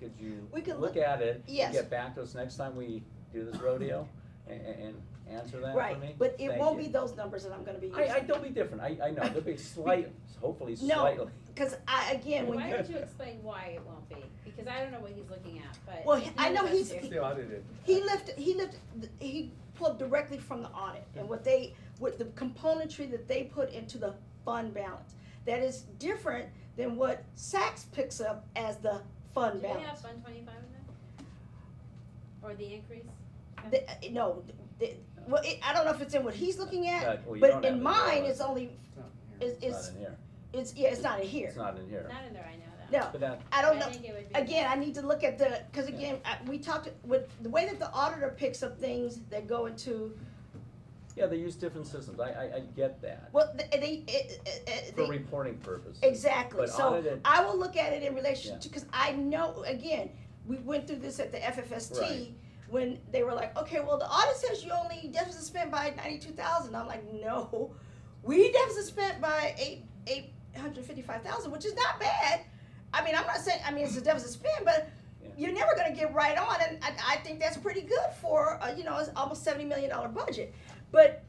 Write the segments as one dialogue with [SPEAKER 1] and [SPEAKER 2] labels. [SPEAKER 1] could you
[SPEAKER 2] We could
[SPEAKER 1] look
[SPEAKER 2] look-
[SPEAKER 1] at it?
[SPEAKER 2] yes.
[SPEAKER 1] Get back to us next time we do this rodeo and, and answer that for me?
[SPEAKER 2] Right, but it
[SPEAKER 1] Thank
[SPEAKER 2] won't
[SPEAKER 1] you.
[SPEAKER 2] be those numbers that I'm gonna be
[SPEAKER 1] I, I,
[SPEAKER 2] using.
[SPEAKER 1] they'll be different, I, I know, they'll be slight, hopefully
[SPEAKER 2] No.
[SPEAKER 1] slightly.
[SPEAKER 2] Cause I, again, when
[SPEAKER 3] Why
[SPEAKER 2] you,
[SPEAKER 3] don't you explain why it won't be? Because I don't know what he's looking at, but.
[SPEAKER 2] Well, I know he's-
[SPEAKER 3] He knows
[SPEAKER 4] the audited.
[SPEAKER 2] he lifted, he lifted, he pulled directly from the audit and what they, with the componentry that they put into the fund balance. That is different than what Saks picks up as the
[SPEAKER 3] Do
[SPEAKER 2] fund
[SPEAKER 3] we have
[SPEAKER 2] balance.
[SPEAKER 3] one twenty-five in there? Or the increase?
[SPEAKER 2] The- uh, No, the- well, it- I don't know if it's in what he's looking at,
[SPEAKER 1] Uh, well, you don't
[SPEAKER 2] but
[SPEAKER 1] have
[SPEAKER 2] in
[SPEAKER 1] it,
[SPEAKER 2] mine,
[SPEAKER 1] no,
[SPEAKER 2] it's only,
[SPEAKER 1] Not
[SPEAKER 2] it's, it's,
[SPEAKER 1] in here,
[SPEAKER 2] it's, yeah, it's not in
[SPEAKER 1] it's
[SPEAKER 2] here.
[SPEAKER 1] not in here.
[SPEAKER 3] Not in there, I know that.
[SPEAKER 2] No,
[SPEAKER 1] But that,
[SPEAKER 2] I don't know.
[SPEAKER 3] I think it would be.
[SPEAKER 2] Again, I need to look at the, because again, I- we talked, with, the way that the auditor picks up things that go into,
[SPEAKER 1] yeah, they use different systems, I, I, I get that,
[SPEAKER 2] well, th- they, it- it- it-
[SPEAKER 1] for
[SPEAKER 2] they-
[SPEAKER 1] reporting purposes.
[SPEAKER 2] exactly,
[SPEAKER 1] But
[SPEAKER 2] so
[SPEAKER 1] audited-
[SPEAKER 2] I will look at it in
[SPEAKER 1] Yeah.
[SPEAKER 2] relation to, because I know, again, we went through this at the FFST,
[SPEAKER 1] Right.
[SPEAKER 2] when they were like, okay, well, the audit says you only deficit spent by ninety-two thousand, I'm like, no, we deficit spent by eight, eight hundred fifty-five thousand, which is not bad, I mean, I'm not saying, I mean, it's a deficit spend, but
[SPEAKER 1] Yeah.
[SPEAKER 2] you're never gonna get right on, and I, I think that's pretty good for, uh, you know, it's almost seventy million dollar budget. But,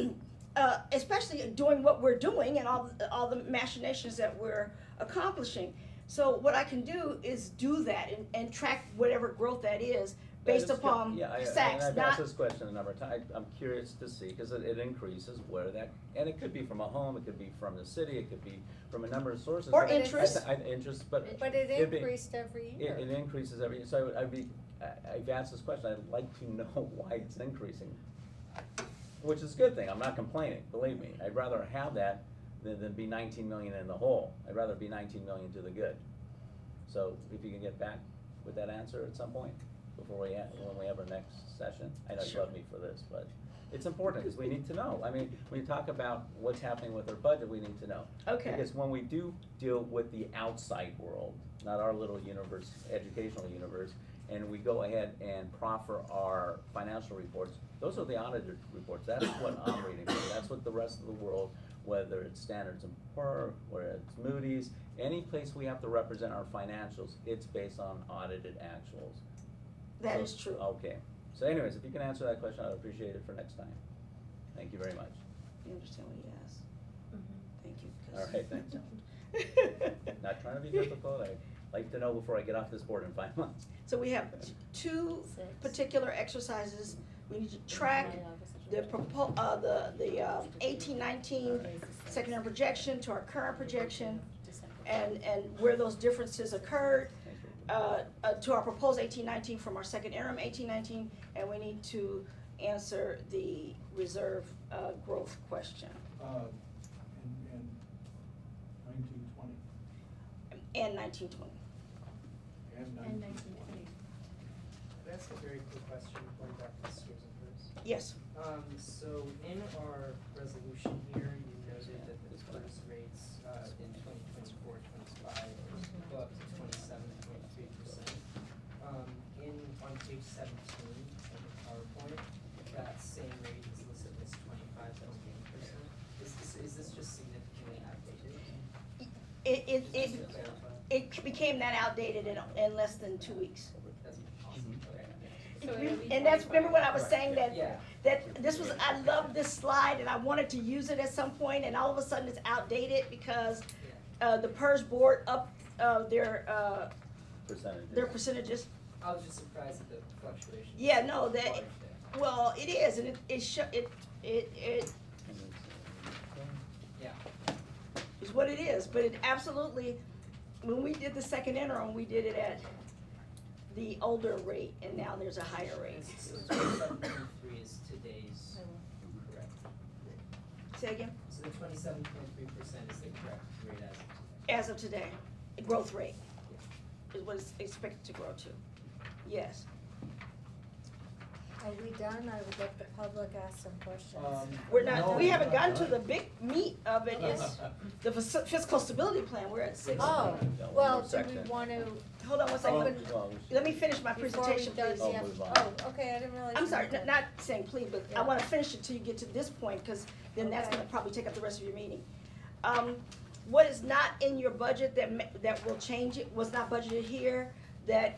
[SPEAKER 2] uh, especially doing what we're doing and all, the- all the machinations that we're accomplishing. So what I can do is do that and, and track whatever growth that is
[SPEAKER 1] Yeah,
[SPEAKER 2] based
[SPEAKER 1] just-
[SPEAKER 2] upon
[SPEAKER 1] yeah, I- And
[SPEAKER 2] sacks,
[SPEAKER 1] I've asked
[SPEAKER 2] not,
[SPEAKER 1] this question a number of times, I'm curious to see, because it, it increases where that, and it could be from a home, it could be from the city, it could be from a number of sources.
[SPEAKER 2] Or
[SPEAKER 1] but I- I-
[SPEAKER 2] interest.
[SPEAKER 1] I- Interest, but
[SPEAKER 3] It-
[SPEAKER 5] But it
[SPEAKER 1] It'd be-
[SPEAKER 5] increased every
[SPEAKER 1] it,
[SPEAKER 5] year.
[SPEAKER 1] it increases every, so I would, I'd be, I- I've asked this question, I'd like to know why it's increasing. Which is a good thing, I'm not complaining, believe me, I'd rather have that than, than be nineteen million in the hole, I'd rather be nineteen million to the good. So if you can get back with that answer at some point, before we, ha- when we have our next session, I know you love me for this, but it's important, because we need to know, I mean, when you talk about what's happening with our budget, we need to know.
[SPEAKER 2] okay,
[SPEAKER 1] Because when we do deal with the outside world, not our little universe, educational universe, and we go ahead and proffer our financial reports, those are the audited reports, that's what I'm reading, from. that's what the rest of the world, whether it's Standards and Poor, whether it's Moody's, any place we have to represent our financials, it's based on audited actuals.
[SPEAKER 2] that
[SPEAKER 1] So-
[SPEAKER 2] is true.
[SPEAKER 1] Okay, so anyways, if you can answer that question, I'd appreciate it for next time. Thank you very much.
[SPEAKER 2] You understand what he asked?
[SPEAKER 3] Mhm.
[SPEAKER 2] Thank you. 'cause-
[SPEAKER 1] All right, thanks.
[SPEAKER 2] thanks.
[SPEAKER 1] Not trying to be difficult, I'd like to know before I get off this board in five months.
[SPEAKER 2] So we have two
[SPEAKER 5] Six.
[SPEAKER 2] particular exercises, we need to track the propo, uh, the, the, uh, eighteen, nineteen secondary projection to our current projection, and, and where those differences occurred,
[SPEAKER 1] Thank you.
[SPEAKER 2] uh, uh, to our proposed eighteen, nineteen from our second interim eighteen, nineteen, and we need to answer the reserve, uh, growth question.
[SPEAKER 4] Uh, and, and nineteen twenty,
[SPEAKER 2] And nineteen, twenty.
[SPEAKER 4] and
[SPEAKER 3] And
[SPEAKER 4] nineteen
[SPEAKER 3] nineteen
[SPEAKER 4] twenty.
[SPEAKER 3] twenty.
[SPEAKER 6] That's a very quick question, going back to Susan first.
[SPEAKER 2] Yes,
[SPEAKER 6] Um, so in our resolution here, you noted that the first rates, uh, in 2024, 25 go up to 27.3 percent. Um, in, on page seventeen of the PowerPoint, that same rate is listed as twenty-five point eight percent. Is this, is this just significantly outdated?
[SPEAKER 2] it, it, it,
[SPEAKER 6] Just to clarify,
[SPEAKER 2] it became that outdated in, in less than two weeks.
[SPEAKER 6] that's awesome, okay.
[SPEAKER 3] So it'll be
[SPEAKER 2] And that's, remember when I was
[SPEAKER 3] 25.
[SPEAKER 2] saying that
[SPEAKER 6] Yeah,
[SPEAKER 2] that this was I love this slide and I wanted to use it at some point and all of a sudden it's outdated because uh, the PERS board up uh, their uh,
[SPEAKER 1] Percentages.
[SPEAKER 2] their percentages.
[SPEAKER 6] I was just surprised at the fluctuation.
[SPEAKER 2] Yeah, no, that-
[SPEAKER 6] Large there.
[SPEAKER 2] Well, it is and it it sho- it it it
[SPEAKER 1] And it's, uh,
[SPEAKER 2] is what it is. But it absolutely, when we did the second interim, we did it at the older rate and now there's a higher rate.
[SPEAKER 6] So twenty-seven point three is today's correct,
[SPEAKER 2] Say again,
[SPEAKER 6] so the twenty-seven point three percent is the correct rate as of today.
[SPEAKER 2] as of today, the growth rate is what it's expected to grow to. Yes.
[SPEAKER 5] Are we done? I would let the public ask some questions.
[SPEAKER 4] Um,
[SPEAKER 2] We're not,
[SPEAKER 4] no,
[SPEAKER 2] we haven't
[SPEAKER 4] we're
[SPEAKER 2] gotten
[SPEAKER 4] not
[SPEAKER 2] to the
[SPEAKER 4] done.
[SPEAKER 2] big meat of it, it's the fis- fiscal stability plan, we're at six.
[SPEAKER 5] Oh,
[SPEAKER 1] no, one more
[SPEAKER 5] well, do we
[SPEAKER 1] uh, section.
[SPEAKER 5] wanna,
[SPEAKER 2] Hold on one
[SPEAKER 1] Oh,
[SPEAKER 2] second,
[SPEAKER 1] well, we should-
[SPEAKER 2] let me finish my
[SPEAKER 5] before we
[SPEAKER 2] presentation,
[SPEAKER 5] go,
[SPEAKER 2] please.
[SPEAKER 1] Oh,
[SPEAKER 5] yeah,
[SPEAKER 1] move on.
[SPEAKER 5] oh, okay, I didn't realize.
[SPEAKER 2] I'm
[SPEAKER 5] you
[SPEAKER 2] sorry,
[SPEAKER 5] were
[SPEAKER 2] n-
[SPEAKER 5] done.
[SPEAKER 2] not saying please, but I
[SPEAKER 5] Yeah.
[SPEAKER 2] wanna finish it till you get to this point, cause then that's
[SPEAKER 5] Okay.
[SPEAKER 2] gonna probably take up the rest of your meeting. Um, what is not in your budget that ma- that will change it, was not budgeted here, that